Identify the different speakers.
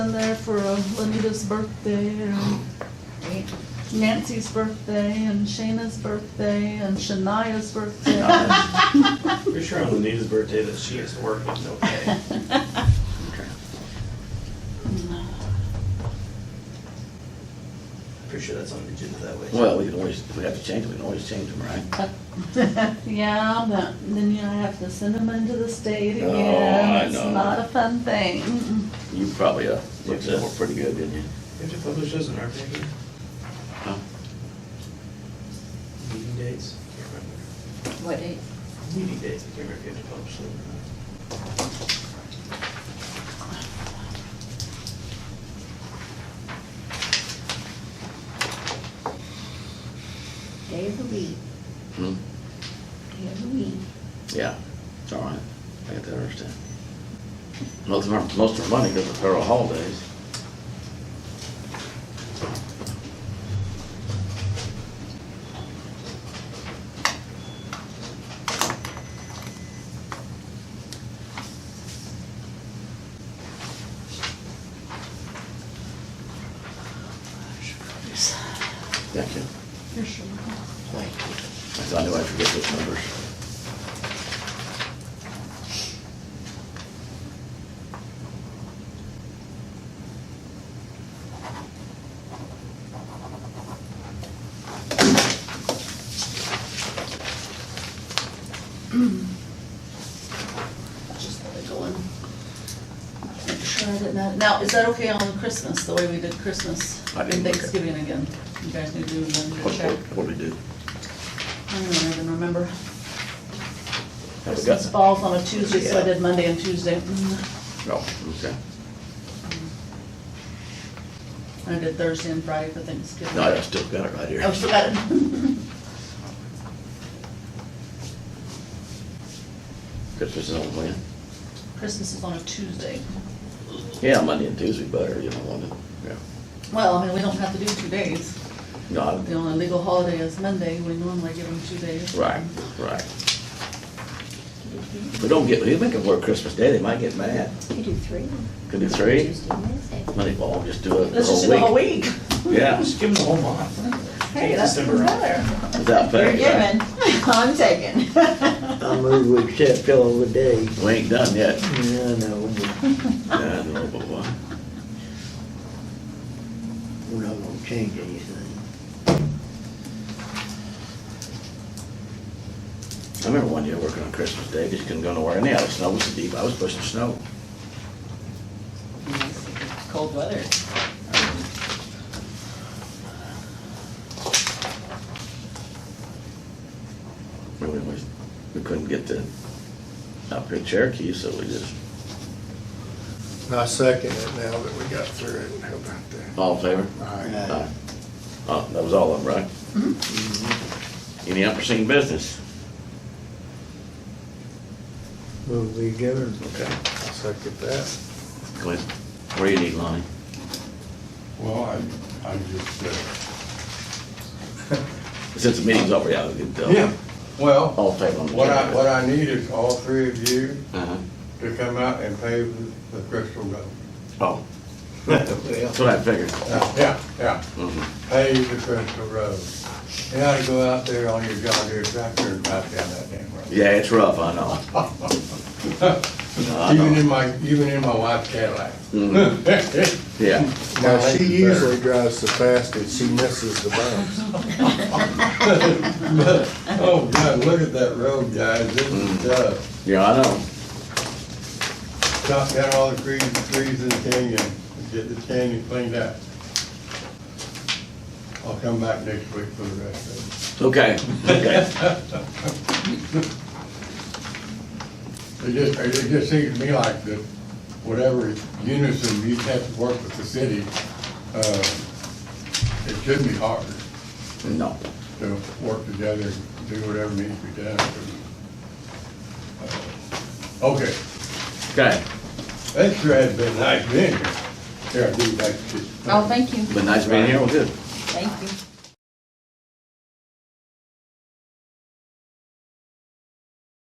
Speaker 1: in there for uh, Lenita's birthday and Nancy's birthday and Shayna's birthday and Shania's birthday.
Speaker 2: Oh.
Speaker 3: Pretty sure on Anita's birthday that she has to work, it's okay. Pretty sure that's on the agenda that way.
Speaker 2: Well, we can always, if we have to change them, we can always change them, right?
Speaker 1: Yeah, but then you have to send them into the state
Speaker 2: Oh,
Speaker 1: again.
Speaker 2: I
Speaker 1: It's
Speaker 2: know.
Speaker 1: not a fun thing. Mm-mm.
Speaker 2: You probably, uh, looked that up pretty good, didn't you?
Speaker 3: We have to publish those in our paper,
Speaker 2: Huh?
Speaker 3: meeting dates, can't remember.
Speaker 4: What date?
Speaker 3: Meeting dates, I can't remember if you have to publish them or
Speaker 4: Day of the week,
Speaker 2: Hmm?
Speaker 4: day of the week.
Speaker 2: Yeah, it's all right. I got that understand. Most of our, most of our money goes to federal holidays. Gotcha.
Speaker 1: For sure.
Speaker 2: I thought I knew I'd forget those numbers.
Speaker 1: Just let it go in. Make sure I didn't have, now, is that okay on Christmas, the way we did Christmas
Speaker 2: I
Speaker 1: and
Speaker 2: didn't look at-
Speaker 1: Thanksgiving again? You guys need to do another
Speaker 2: What,
Speaker 1: check.
Speaker 2: what, what do we do?
Speaker 1: I don't even remember.
Speaker 2: Have we
Speaker 1: Christmas
Speaker 2: got?
Speaker 1: falls on a Tuesday, so I
Speaker 2: Yeah.
Speaker 1: did Monday and Tuesday. Mm.
Speaker 2: Oh, okay.
Speaker 1: And I did Thursday and Friday for Thanksgiving.
Speaker 2: No, I still got it right here.
Speaker 1: Oh, forgot it.
Speaker 2: Christmas is on when?
Speaker 1: Christmas is on a Tuesday.
Speaker 2: Yeah, Monday and Tuesday better, you don't want to, yeah.
Speaker 1: Well, I mean, we don't have to do two days.
Speaker 2: No,
Speaker 1: The
Speaker 2: I-
Speaker 1: only legal holiday is Monday, we normally give them two days.
Speaker 2: right, right. We don't get, we make them work Christmas Day, they might get mad.
Speaker 4: You do three.
Speaker 2: Could do three,
Speaker 4: Tuesday, Wednesday.
Speaker 2: Monday, well, we'll just do it
Speaker 1: Let's just do the
Speaker 2: the
Speaker 1: whole
Speaker 2: whole week.
Speaker 1: week.
Speaker 2: Yeah,
Speaker 3: Just give them the whole month.
Speaker 1: Hey,
Speaker 3: Take
Speaker 1: that's
Speaker 3: December
Speaker 1: even
Speaker 3: off.
Speaker 1: better.
Speaker 2: without
Speaker 4: You're
Speaker 2: pay, right?
Speaker 4: given, I'm taking.
Speaker 5: I move we accept all the day.
Speaker 2: We ain't done yet.
Speaker 5: I know, but
Speaker 2: Yeah, I know, but what?
Speaker 5: we're not gonna change anything.
Speaker 2: I remember one year working on Christmas Day, because you couldn't go nowhere, and yeah, the snow was deep, I was pushing snow.
Speaker 4: Cold weather.
Speaker 2: We, we, we- we couldn't get to, up here Cherokee, so we just,
Speaker 6: And I second it now that we got through it. How about that?
Speaker 2: all in favor?
Speaker 6: All right.
Speaker 2: Aye. Uh, that was all of them, right?
Speaker 1: Mm-hmm.
Speaker 2: Any unforeseen business?
Speaker 5: Move we adjourn.
Speaker 2: Okay.
Speaker 6: I second that.
Speaker 2: Go ahead. Where you need Lonnie?
Speaker 7: Well, I'm, I'm just, uh,
Speaker 2: Since the meeting's over, yeah, we can tell.
Speaker 7: yeah, well,
Speaker 2: All in favor on the.
Speaker 7: what I, what I need is all three of you
Speaker 2: Uh-huh.
Speaker 7: to come out and pave the the Crystal Road.
Speaker 2: Oh, that's what I figured.
Speaker 7: Uh, Yeah, yeah,
Speaker 2: Mhm.
Speaker 7: pave the Crystal Road. You ought to go out there on your John Deere tractor and drive down that damn road.
Speaker 2: Yeah, it's rough, I know. I
Speaker 7: Even
Speaker 2: know.
Speaker 7: in my, even in my wife's Cadillac.
Speaker 2: Mm-hmm. Yeah,
Speaker 6: Now, she usually drives the fastest. She misses the bumps.
Speaker 7: Oh, God, look at that road, guys, this is,
Speaker 2: Mm.
Speaker 7: uh,
Speaker 2: yeah, I know.
Speaker 7: chop down all the trees, trees in the canyon, get the canyon cleaned out. I'll come back next week for the rest of
Speaker 2: Okay, okay.
Speaker 7: it. It just, it just seems to me like that whatever unison you have to work with the city, uh, it shouldn't be hard
Speaker 2: No,
Speaker 7: to work together and do whatever needs to be done. Uh, Okay,
Speaker 2: okay.
Speaker 7: that sure has been nice being here. Here, I'll give you back to.
Speaker 4: Oh, thank you,
Speaker 2: Been nice being here, well, good.
Speaker 4: thank you.